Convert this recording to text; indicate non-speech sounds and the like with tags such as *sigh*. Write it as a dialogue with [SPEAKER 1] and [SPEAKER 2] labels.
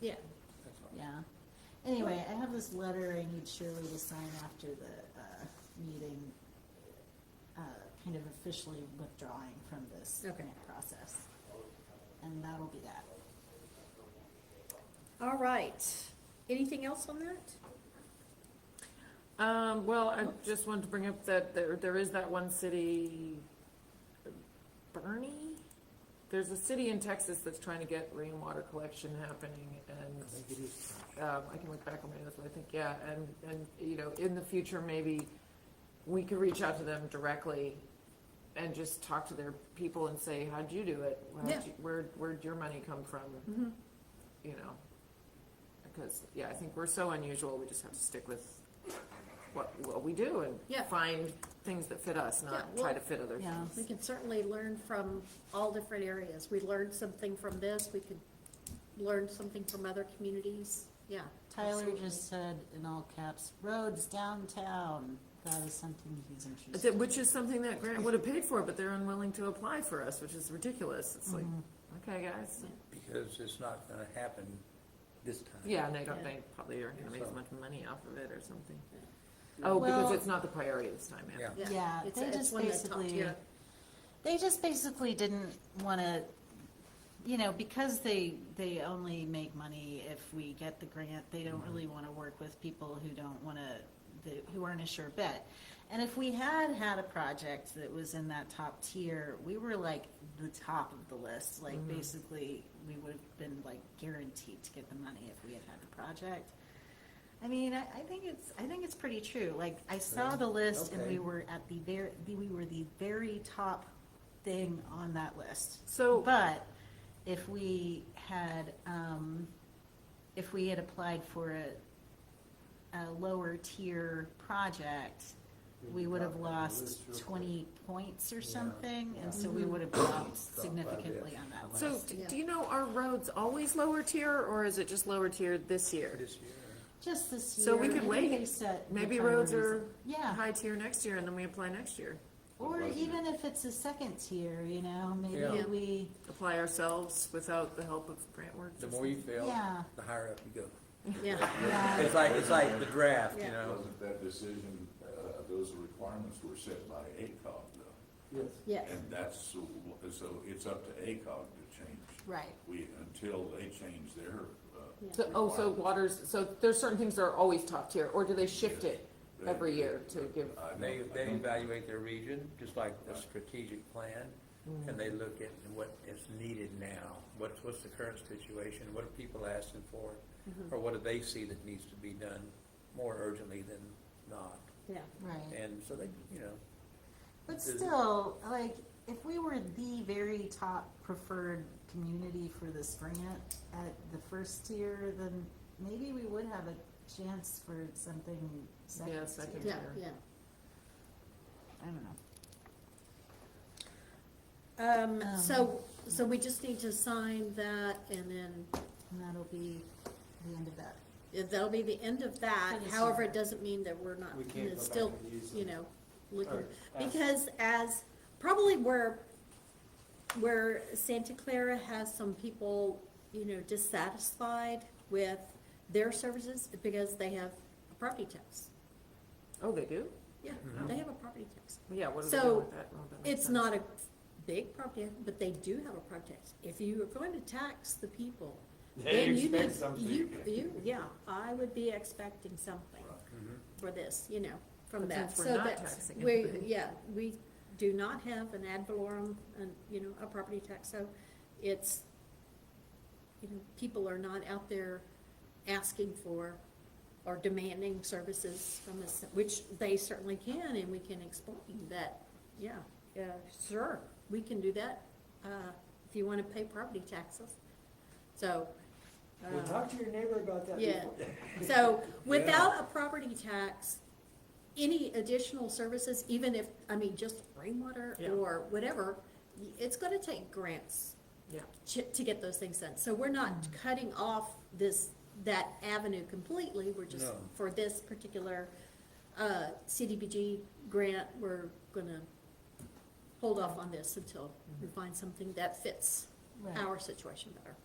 [SPEAKER 1] Yeah,
[SPEAKER 2] That's fine.
[SPEAKER 1] yeah. Anyway, I have this letter I need Shirley to sign after the, uh, meeting, uh, kind of officially withdrawing from this
[SPEAKER 3] Okay.
[SPEAKER 1] grant process. And that'll be that.
[SPEAKER 3] All right. Anything else on that?
[SPEAKER 4] Um, well, I just wanted to bring up that there, there is that one city, Bernie? There's a city in Texas that's trying to get rainwater collection happening
[SPEAKER 2] I
[SPEAKER 4] and,
[SPEAKER 2] think it is.
[SPEAKER 4] um, I can look back on my notes, but I think, yeah, and, and, you know, in the future, maybe we could reach out to them directly and just talk to their people and say, how'd you do it? How'd
[SPEAKER 3] Yeah. Mm-hmm.
[SPEAKER 4] you- Where, where'd your money come from? You know? Because, yeah, I think we're so unusual, we just have to stick with what, what we do and
[SPEAKER 3] Yeah.
[SPEAKER 4] find things that fit us,
[SPEAKER 3] Yeah,
[SPEAKER 4] not
[SPEAKER 3] well-
[SPEAKER 4] try to fit other
[SPEAKER 1] Yeah.
[SPEAKER 4] things.
[SPEAKER 3] We can certainly learn from all different areas. We learned something from this, we could learn something from other communities, yeah.
[SPEAKER 1] Tyler
[SPEAKER 3] absolutely.
[SPEAKER 1] just said in all caps, roads downtown. That is something he's interested
[SPEAKER 4] That-
[SPEAKER 1] in.
[SPEAKER 4] Which is something that Grant would have paid for, but they're unwilling to apply for us, which is ridiculous. It's like,
[SPEAKER 3] Mm-hmm.
[SPEAKER 4] okay, guys,
[SPEAKER 2] Because it's not gonna happen this time.
[SPEAKER 4] yeah, and they don't,
[SPEAKER 3] Yeah.
[SPEAKER 4] they probably aren't gonna make as
[SPEAKER 2] So-
[SPEAKER 4] much money off of it or something. Oh, because
[SPEAKER 1] Well-
[SPEAKER 4] it's not the priority this time, yeah.
[SPEAKER 2] Yeah.
[SPEAKER 1] Yeah,
[SPEAKER 3] it's-
[SPEAKER 1] they
[SPEAKER 3] it's
[SPEAKER 1] just
[SPEAKER 3] one that top
[SPEAKER 1] basically-
[SPEAKER 3] tier.
[SPEAKER 1] They just basically didn't want to, you know, because they, they only make money if we get the grant, they don't really want to work with people who don't want to, who aren't a sure bet. And if we had had a project that was in that top tier, we were like the top of the list. Like basically, we would have been like guaranteed to get the money if we had had the project. I mean, I, I think it's, I think it's pretty true. Like, I saw
[SPEAKER 2] Yeah.
[SPEAKER 1] the list and
[SPEAKER 2] Okay.
[SPEAKER 1] we were at the very, we were the very top thing on that list.
[SPEAKER 4] So-
[SPEAKER 1] But if we had, um, if we had applied for a, a lower tier project, we would have lost twenty points or
[SPEAKER 2] Yeah.
[SPEAKER 1] something, and so we would have dropped significantly on that
[SPEAKER 4] So,
[SPEAKER 1] list.
[SPEAKER 4] d-
[SPEAKER 3] Yeah.
[SPEAKER 4] do you know, are roads always lower tier, or is it just lower tier this year?
[SPEAKER 2] This year.
[SPEAKER 1] Just this year.
[SPEAKER 4] So we could
[SPEAKER 1] maybe
[SPEAKER 4] wait.
[SPEAKER 1] they set the
[SPEAKER 4] Maybe roads are
[SPEAKER 1] priorities. Yeah.
[SPEAKER 4] high tier next year, and then we apply next year,
[SPEAKER 1] Or
[SPEAKER 5] Right.
[SPEAKER 1] even if it's a second tier, you know, maybe
[SPEAKER 2] Yeah.
[SPEAKER 1] we,
[SPEAKER 4] apply ourselves without the help of grant work.
[SPEAKER 2] The more you fail,
[SPEAKER 1] Yeah.
[SPEAKER 2] the higher up you go.
[SPEAKER 3] Yeah,
[SPEAKER 1] yeah,
[SPEAKER 2] It's like, it's like the draft, you
[SPEAKER 3] Yeah.
[SPEAKER 2] know?
[SPEAKER 5] Wasn't that decision, uh, those requirements were set by ACOG though?
[SPEAKER 6] Yes.
[SPEAKER 1] *laughs*
[SPEAKER 3] yes,
[SPEAKER 5] And that's, so it's up to ACOG to change.
[SPEAKER 3] right,
[SPEAKER 5] We, until they change their, uh.
[SPEAKER 3] Yeah.
[SPEAKER 4] So, oh, so waters, so there's certain things that are always top tier, or do they shift it
[SPEAKER 5] requirements,
[SPEAKER 4] every
[SPEAKER 5] they-
[SPEAKER 4] year to give?
[SPEAKER 5] I don't-
[SPEAKER 2] They,
[SPEAKER 5] I
[SPEAKER 2] they
[SPEAKER 5] don't-
[SPEAKER 2] evaluate their region, just like a
[SPEAKER 5] Right.
[SPEAKER 2] strategic plan, and they look at what is needed now. What, what's the current situation, what are people asking for,
[SPEAKER 1] Mm-hmm.
[SPEAKER 2] or what do they see that needs to be done more urgently than not?
[SPEAKER 3] yeah.
[SPEAKER 1] right.
[SPEAKER 2] And so they, you know,
[SPEAKER 1] But
[SPEAKER 2] Is it-
[SPEAKER 1] still, like, if we were the very top preferred community for this grant at the first tier, then maybe we would have a chance for something
[SPEAKER 4] Yeah,
[SPEAKER 1] second
[SPEAKER 4] second
[SPEAKER 1] tier.
[SPEAKER 3] Yeah, yeah.
[SPEAKER 1] I don't know.
[SPEAKER 3] Um,
[SPEAKER 1] Um,
[SPEAKER 3] so, so we just need to sign that and then
[SPEAKER 1] And that'll be the end of that.
[SPEAKER 3] Yeah, That'll be the end of that,
[SPEAKER 1] For this
[SPEAKER 3] however,
[SPEAKER 1] year.
[SPEAKER 3] it doesn't mean that we're not,
[SPEAKER 6] We can't
[SPEAKER 3] it's
[SPEAKER 6] go
[SPEAKER 3] still,
[SPEAKER 6] back and use them.
[SPEAKER 3] you know, looking,
[SPEAKER 6] Or ask.
[SPEAKER 3] because as, probably where, where Santa Clara has some people, you know, dissatisfied with their services, because they have a property tax.
[SPEAKER 4] Oh, they do?
[SPEAKER 3] Yeah, they have a property tax.
[SPEAKER 4] Yeah, what do they do
[SPEAKER 3] So,
[SPEAKER 4] with that? Oh, that makes
[SPEAKER 3] It's
[SPEAKER 4] sense.
[SPEAKER 3] not a big property, tax, but they do have a property tax. If you are going to tax the people,
[SPEAKER 6] They
[SPEAKER 3] then you
[SPEAKER 6] expect
[SPEAKER 3] need-
[SPEAKER 6] something.
[SPEAKER 3] You, you, yeah, I would be expecting something
[SPEAKER 6] Mm-hmm.
[SPEAKER 3] for this, you know, from
[SPEAKER 4] But
[SPEAKER 3] that.
[SPEAKER 4] since we're
[SPEAKER 3] So
[SPEAKER 4] not
[SPEAKER 3] that's-
[SPEAKER 4] taxing
[SPEAKER 3] we-
[SPEAKER 4] anybody.
[SPEAKER 3] Yeah, we do not have an ad valorem, and, you know, a property tax, so it's, you know, people are not out there asking for or demanding services from us, which they certainly can, and we can explain that, yeah, yeah, sure, we can do that, uh, if you wanna pay property taxes. So,
[SPEAKER 6] Well,
[SPEAKER 3] uh,
[SPEAKER 6] talk to your neighbor about that
[SPEAKER 3] yeah,
[SPEAKER 6] before. *laughs*
[SPEAKER 3] so without a property tax, any additional services, even if, I mean, just rainwater
[SPEAKER 4] Yeah.
[SPEAKER 3] or whatever, y- it's gonna take grants
[SPEAKER 4] Yeah,
[SPEAKER 3] to, to get those things done. So we're not cutting off this, that avenue completely, we're just,
[SPEAKER 2] No.
[SPEAKER 3] for this particular, uh, CDBG grant, we're gonna hold off on this until we find something that fits
[SPEAKER 1] Right.
[SPEAKER 3] our situation better.